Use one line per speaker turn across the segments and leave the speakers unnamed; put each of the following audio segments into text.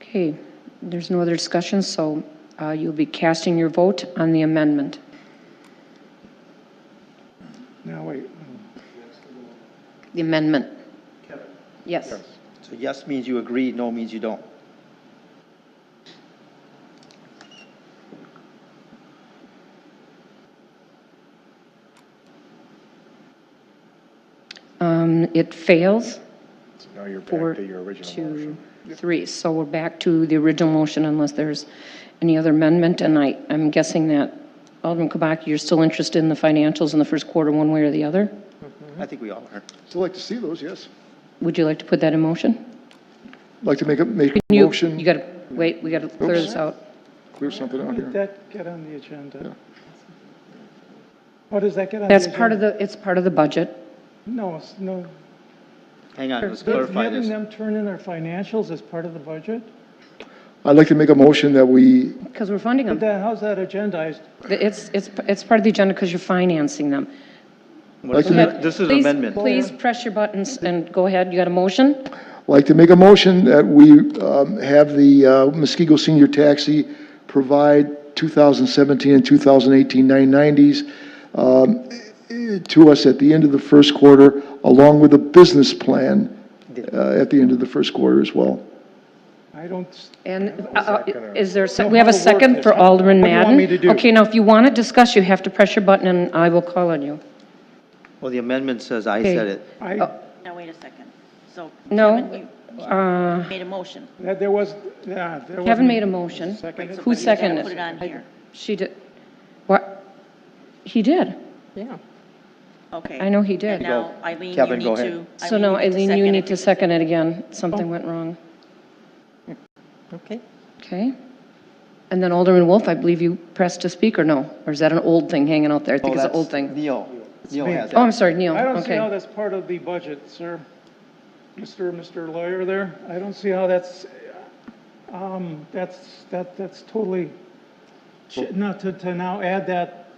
Okay, there's no other discussion, so uh, you'll be casting your vote on the amendment.
Now, wait,
The amendment. Yes.
So yes means you agree, no means you don't.
Um, It fails
now you're
four
back to your original
to
motion.
three. So we're back to the original motion unless there's any other amendment. And I, I'm guessing that Alderman Kabaki, you're still interested in the financials in the first quarter, one way or the other?
I think we all are.
Still like to see those, yes.
Would you like to put that in motion?
Like to make a, make a
You-
motion,
You got to, wait, we got to clear
Oops.
this out.
clear something out
How did
here.
that get on the agenda? How does that get on? the
That's part of the, it's part of the budget.
agenda? No, it's no.
Hang on, let's
Does
clarify this.
Having them turn in our financials as part of the budget?
I'd like to make a motion that we,
Because we're funding
But
them.
then how's that agendized?
It's, it's, it's part of the agenda because you're financing them.
What is it?
Like
Okay,
This is an
please-
amendment.
Please press your buttons and go ahead. You got a motion?
like to make a motion that we um, have the uh, Muskego Senior Taxi provide 2017 and 2018 990s um, eh, to us at the end of the first quarter, along with a business plan uh, at the end of the first quarter as well.
I don't, s-
And uh, uh, is there, a se-
No,
we have a
how to work
second
this.
for Alderman
What do you
Madden?
want me to do?
Okay, now if you want to discuss, you have to press your button and I will call on you.
Well, the amendment says I
Okay.
said it.
Oh.
I,
Now, wait a second. So.
No?
Kevin,
Uh,
you Made a motion.
that there was, yeah, there was.
Kevin made a motion.
Seconded.
Who
You gotta
seconded?
Put it on here.
She did. What? He did.
Okay.
I know he did.
And now, Eileen, you
Kevin,
need
go ahead.
to.
So now, Eileen, you
second
need
it.
to second it again. Something
Oh.
went wrong. Okay. Okay. And then Alderman Wolf, I believe you pressed to speak or no? Or is that an old thing hanging out there? I think it's an old thing.
Neil, Neil has it.
Oh, I'm sorry, Neil.
Oh, I don't see
Okay.
how that's part of the budget, sir. Mr. Mr. Lawyer there, I don't see how that's, um, that's, that, that's totally, not to, to now add that,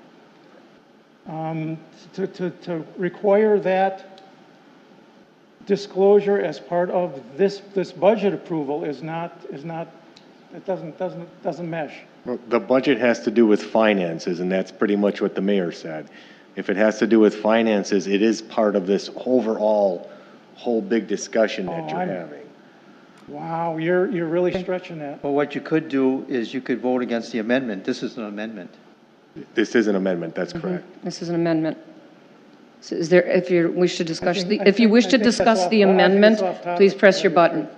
um, to, to, to require that disclosure as part of this, this budget approval is not, is not, it doesn't, doesn't, doesn't mesh.
Well, The budget has to do with finances, and that's pretty much what the mayor said. If it has to do with finances, it is part of this overall, whole big discussion that
Oh,
you're
I'm-
having.
Wow, you're, you're really stretching that.
Well, what you could do is you could vote against the amendment. This is an amendment.
This is an amendment, that's correct.
This is an amendment. So is there, if you wish to discuss,
think-
the
I
if you
think-
wish to
I think that's
discuss
off-
the
I think it's
amendment,
off topic.
please press your button.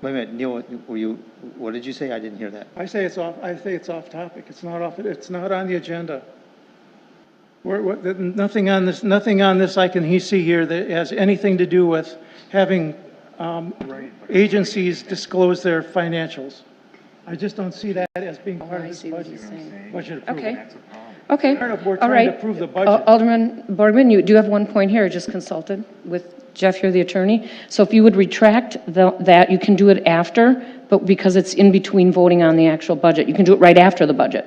Wait a minute, Neil, were you, what did you say? I didn't hear that.
I say it's off, I say it's off topic, it's not off, it's not on the agenda. We're, we're- th- nothing on this, nothing on this I can he- see here that has anything to do with having um, agencies disclose their financials. I just don't see that as being part
Oh, I
of this
see what you're
budget,
saying.
budget approval.
Okay. Okay.
Fair enough, we're
All
trying to
right.
approve the
Uh,
budget.
Alderman Borgman, you do have one point here. I just consulted with Jeff, you're the attorney. So if you would retract the- that, you can do it after, but because it's in between voting on the actual budget, you can do it right after the budget.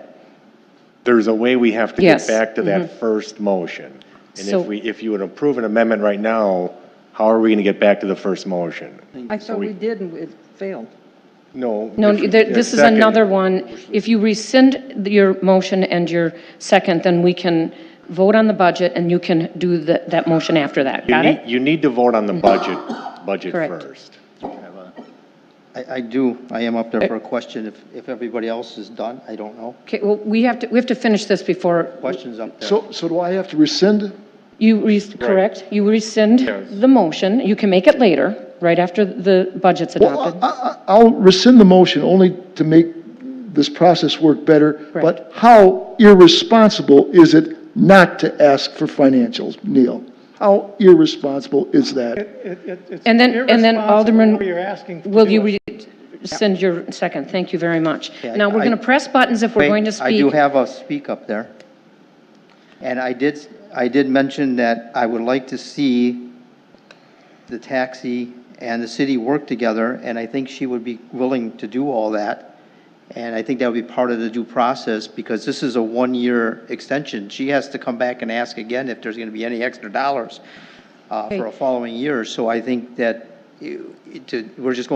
There's a way we have to
Yes,
get back to that first motion. And
So-
if we, if you would approve an amendment right now, how are we going to get back to the first motion?
I thought we did, and it failed.
No.
No,
if you-
there- this is
second.
another one. If you rescind your motion and your second, then we can vote on the budget and you can do the- that motion after that.
You
Got
need,
it?
you need to vote on the budget, budget
Correct.
first.
I, I do, I am up there for a question. If, if everybody else is done, I don't know.
Okay, well, we have to, we have to finish this before
Question's up there.
So, so do I have to rescind?
You, res- correct, you rescind the motion, you can make it later, right after the budget's
Well, uh,
adopted.
I- I- I'll rescind the motion only to make this process work better,
Correct.
but how irresponsible is it not to ask for financials, Neil? How irresponsible is that?
It- it- it's
And then, and then
irresponsible
Alderman,
what You're asking. to
will
do
you
it.
re- rescind your second? Thank you very much.
Yeah,
Now, we're
I-
going to press buttons if we're
Wait,
going to
I do
speak.
have a speak up there. And I did, I did mention that I would like to see the taxi and the city work together, and I think she would be willing to do all that. And I think that would be part of the due process, because this is a one-year extension. She has to come back and ask again if there's going to be any extra dollars uh, for a following year. So I think that you- to, we're just going